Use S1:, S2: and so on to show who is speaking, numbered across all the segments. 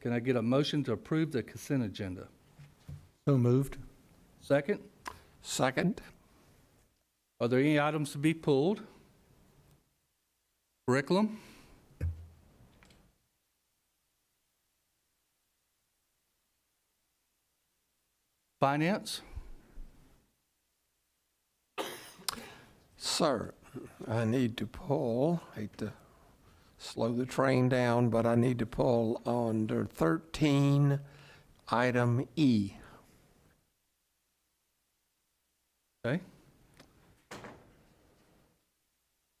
S1: Can I get a motion to approve the consent agenda?
S2: So moved.
S1: Second,
S3: Second?
S1: are there any items to be pulled? Curriculum? Finance?
S3: Sir, I need to pull, hate to slow the train down, but I need to pull under 13, item E.
S1: Okay.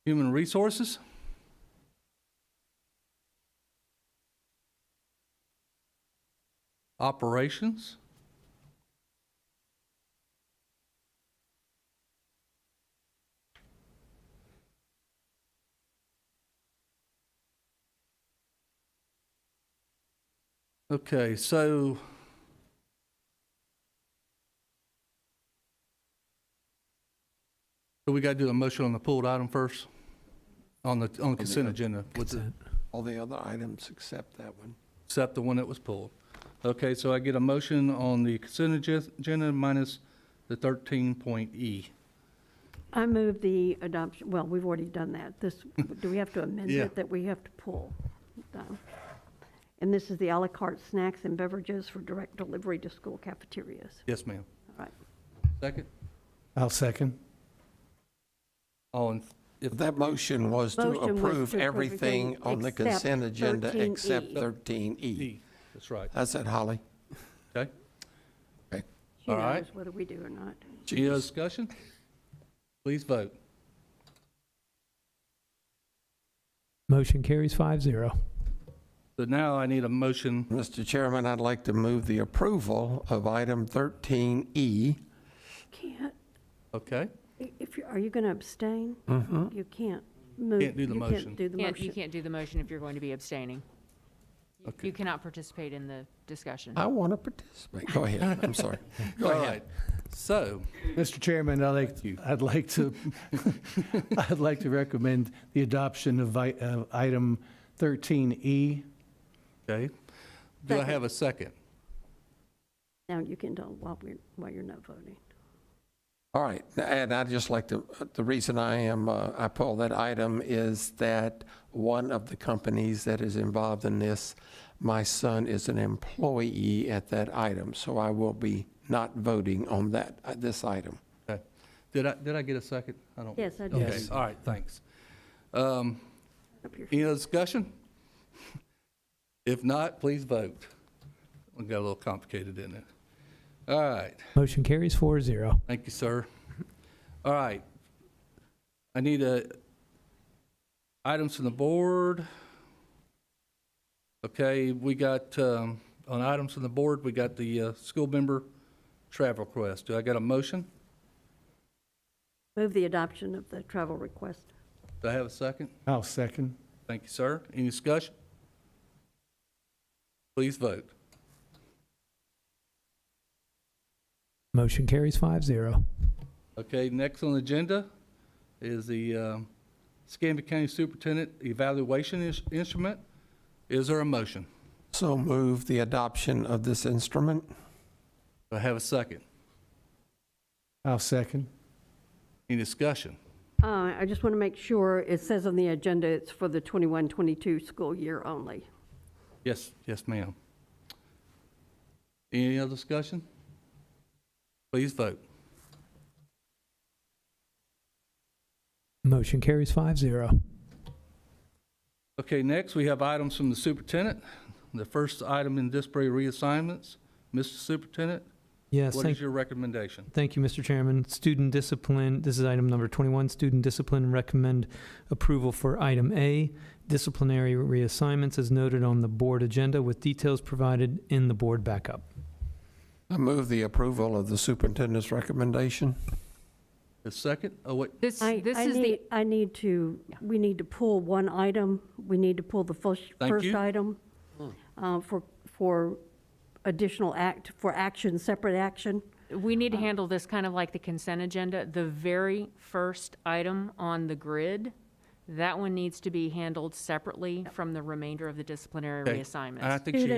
S1: Human resources? Operations? Okay, so so we got to do a motion on the pulled item first, on the, on the uh, consent agenda. with the-
S3: All the other items except that one.
S1: Except the one that was pulled. Okay, so I get a motion on the consent agen- agenda minus the thirteen point E.
S4: I move the adoption, well, we've already done that. This, do we have to amend
S1: Yeah.
S4: it that we have to pull? No. And this is the à la carte snacks and beverages for direct delivery to school cafeterias.
S1: Yes, ma'am.
S4: All right.
S1: Second?
S2: I'll second.
S1: All in, if,
S3: That motion was to
S4: Motion was to
S3: approve
S4: approve
S3: everything
S4: everything
S3: on the
S4: except E.
S3: consent agenda
S4: 13E.
S3: except 13E.
S1: E, that's right,
S3: That's it, Holly.
S1: okay?
S4: She
S1: All right.
S4: knows whether we do or not.
S1: Any other discussion? Please vote.
S5: Motion carries five zero.
S1: So now I need a motion,
S3: Mr. Chairman, I'd like to move the approval of item E. 13E.
S4: Can't,
S1: okay?
S4: i- if, you are you going to abstain? You can't
S1: Mm-hmm.
S4: move.
S1: Can't do the
S4: you
S1: motion.
S4: Can't do the
S6: Can't- You
S4: motion.
S6: can't do the motion if you're going to be abstaining. You-
S1: Okay.
S6: You cannot participate in the discussion.
S3: I want to participate. Go ahead, I'm sorry. Go
S1: All
S3: ahead.
S1: right. So,
S2: Mr. Chairman, I'd like, I'd like to, I'd like to recommend the adoption of i- of item E. 13E.
S1: okay, do I have a second?
S4: Now you can do while we're, while you're not voting.
S3: All right, and I'd just like to, the reason I am, uh, I pulled that item is that one of the companies that is involved in this, my son is an employee at that item, so I will be not voting on that, uh, this item.
S1: Okay. Did I, did I get a second? I don't.
S4: Yes, I do.
S1: Okay, all right, thanks. Um,
S4: Up your-
S1: Any other discussion? If not, please vote. We got a little complicated in it. All right,
S5: Motion carries four zero.
S1: thank you, sir. All right. I need a, items from the board. Okay, we got, um, on items from the board, we got the, uh, school member travel request. Do I got a motion?
S4: Move the adoption of the travel request.
S1: Do I have a second?
S2: I'll second.
S1: Thank you, sir. Any discussion? Please vote.
S5: Motion carries five zero.
S1: Okay, next on the agenda is the um, Escambia County Superintendent Evaluation Ins- Instrument. Is there a motion?
S3: So move the adoption of this instrument.
S1: Do I have a second?
S2: I'll second.
S1: Any discussion?
S4: Uh, I just want to make sure, it says on the agenda, it's for the 21, 22 school year only.
S1: Yes, yes, ma'am. Any other discussion? Please vote.
S5: Motion carries five zero.
S1: Okay, next, we have items from the superintendent. The first item in disciplinary reassignments. Mr. Superintendent,
S5: Yes,
S1: what
S5: thank,
S1: is your recommendation?
S5: thank you, Mr. Chairman. Student discipline, this is item number twenty-one, student discipline recommend approval for item A, disciplinary reassignments as noted on the board agenda with details provided in the board backup.
S3: I move the approval of the superintendent's recommendation.
S1: The second, oh, wait,
S6: This,
S4: I,
S6: this
S4: I
S6: is the,
S4: need, I need to, we need to pull one item, we need to pull the first,
S1: Thank
S4: first
S1: you.
S4: item
S6: Hmm.
S4: uh, for, for additional act, for action, separate action.
S6: we
S1: Uh.
S6: need to handle this kind of like the consent agenda. The very first item on the grid, that one needs to be handled separately from the remainder of the disciplinary
S1: okay.
S6: reassignments.
S1: I think she